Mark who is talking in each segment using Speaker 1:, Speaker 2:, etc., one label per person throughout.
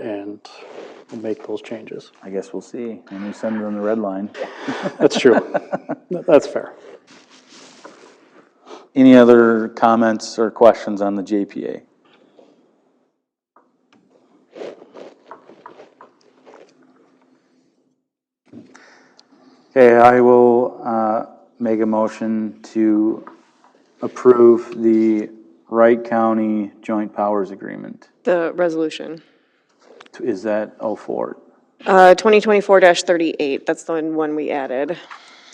Speaker 1: and make those changes.
Speaker 2: I guess we'll see. And you send them the red line.
Speaker 1: That's true. That's fair.
Speaker 2: Any other comments or questions on the JPA? Okay, I will uh, make a motion to approve the Wright County Joint Powers Agreement.
Speaker 3: The resolution.
Speaker 2: Is that 04?
Speaker 3: Uh, 2024-38, that's the one we added.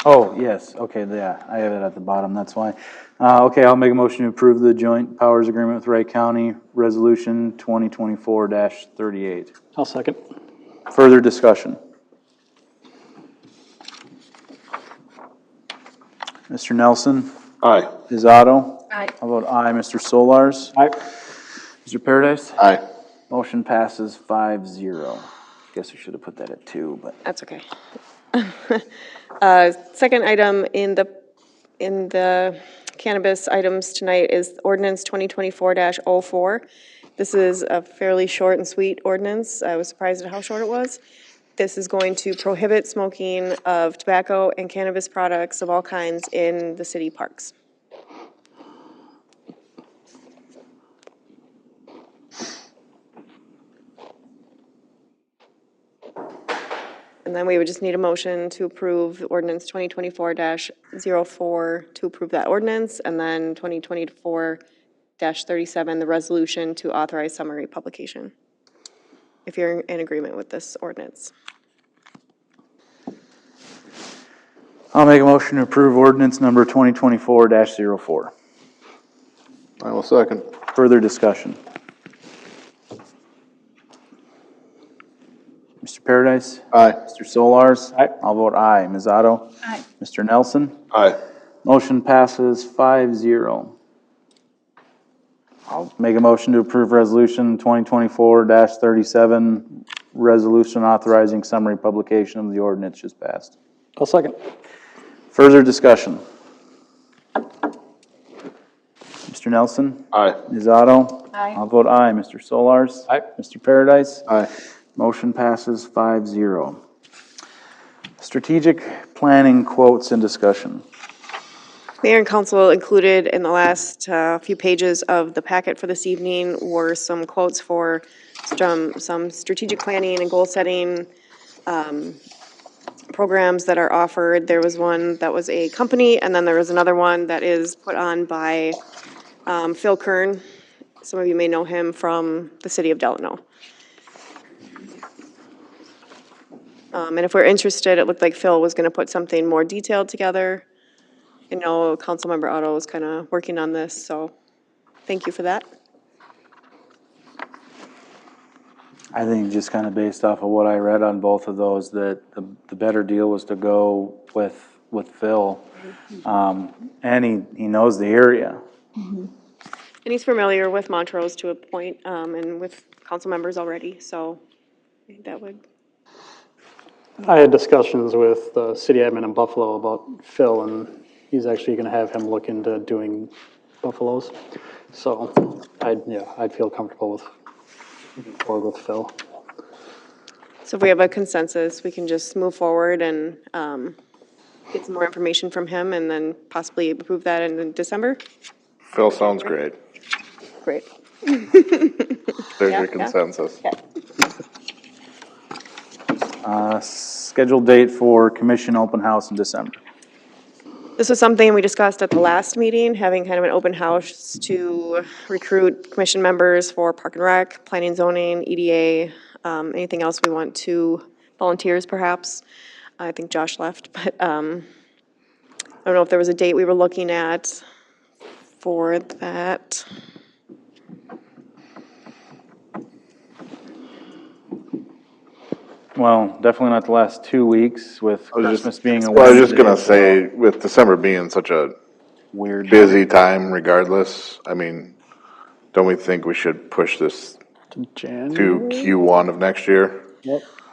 Speaker 2: Oh, yes, okay, yeah, I have it at the bottom, that's why. Uh, okay, I'll make a motion to approve the joint powers agreement with Wright County, resolution twenty twenty-four thirty-eight.
Speaker 1: I'll second.
Speaker 2: Further discussion? Mr. Nelson,
Speaker 4: Aye.
Speaker 2: Ms. Otto?
Speaker 3: Aye.
Speaker 2: How about aye, Mr. Solars?
Speaker 1: Aye.
Speaker 2: Mr. Paradise?
Speaker 4: Aye.
Speaker 2: Motion passes five zero. Guess we should have put that at two, but.
Speaker 3: That's okay. Uh, Second item in the, in the cannabis items tonight is ordinance 2024-04. This is a fairly short and sweet ordinance. I was surprised at how short it was. This is going to prohibit smoking of tobacco and cannabis products of all kinds in the city parks. And then we would just need a motion to approve ordinance twenty twenty-four 4 to approve that ordinance, and then twenty twenty-four thirty-seven, the resolution to authorize summary publication. If you're in agreement with this ordinance.
Speaker 2: I'll make a motion to approve ordinance number twenty twenty-four 4
Speaker 4: I will second.
Speaker 2: Further discussion? Mr. Paradise?
Speaker 4: Aye.
Speaker 2: Mr. Solars?
Speaker 1: Aye.
Speaker 2: I'll vote aye. Ms. Otto? Aye. Mr. Nelson?
Speaker 4: Aye.
Speaker 2: Motion passes five zero. I'll make a motion to approve resolution twenty twenty-four thirty-seven, resolution authorizing summary publication of the ordinance just passed.
Speaker 1: I'll second.
Speaker 2: Further discussion? Mr. Nelson?
Speaker 4: Aye.
Speaker 2: Ms. Otto? Aye. I'll vote aye. Mr. Solars?
Speaker 1: Aye.
Speaker 2: Mr. Paradise?
Speaker 4: Aye.
Speaker 2: Motion passes five zero. Strategic planning quotes and discussion.
Speaker 3: Mayor and council included in the last uh, few pages of the packet for this evening were some quotes for some, some strategic planning and goal-setting um, programs that are offered. There was one that was a company, and then there was another one that is put on by um, Phil Kern. Some of you may know him from the city of Delano. Um, And if we're interested, it looked like Phil was going to put something more detailed together. I know Councilmember Otto is kind of working on this, so thank you for that.
Speaker 2: I think just kind of based off of what I read on both of those, that the, the better deal was to go with, with Phil. Um, and he, he knows the area.
Speaker 3: And he's familiar with Montrose to a point, um, and with council members already, so I think that would,
Speaker 1: I had discussions with the city admin in Buffalo about Phil, and he's actually gonna have him look into doing buffaloes. So I'd, yeah, I'd feel comfortable with, or with Phil.
Speaker 3: so if we have a consensus, we can just move forward and, um, get some more information from him and then possibly approve that in December?
Speaker 4: Phil sounds great.
Speaker 3: Great.
Speaker 4: There's
Speaker 3: Yeah,
Speaker 4: your
Speaker 3: yeah.
Speaker 4: consensus.
Speaker 3: Okay.
Speaker 2: Uh, scheduled date for commission open house in December.
Speaker 3: This was something we discussed at the last meeting, having kind of an open house to recruit commission members for Park and Rec, Planning and Zoning, EDA, um, anything else we want to, volunteers perhaps. I think Josh left, but, um, I don't know if there was a date we were looking at for that.
Speaker 2: Well, definitely not the last two weeks with
Speaker 4: was just-
Speaker 2: Christmas being a
Speaker 4: Well, I was just
Speaker 2: Wednesday.
Speaker 4: gonna say, with December being such a
Speaker 2: Weird.
Speaker 4: busy time regardless, I mean, don't we think we should push this
Speaker 1: Jan,
Speaker 4: to Q1 of next year?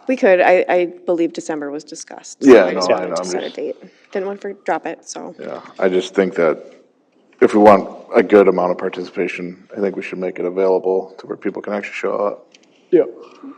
Speaker 3: We could, I, I believe December was discussed. so
Speaker 4: Yeah,
Speaker 3: I just
Speaker 4: no, I
Speaker 3: wanted
Speaker 4: know,
Speaker 3: to
Speaker 4: I'm
Speaker 3: Set a
Speaker 4: just-
Speaker 3: date. Didn't want to drop it, so.
Speaker 4: Yeah, I just think that if we want a good amount of participation, I think we should make it available to where people can actually show up.
Speaker 1: Yep.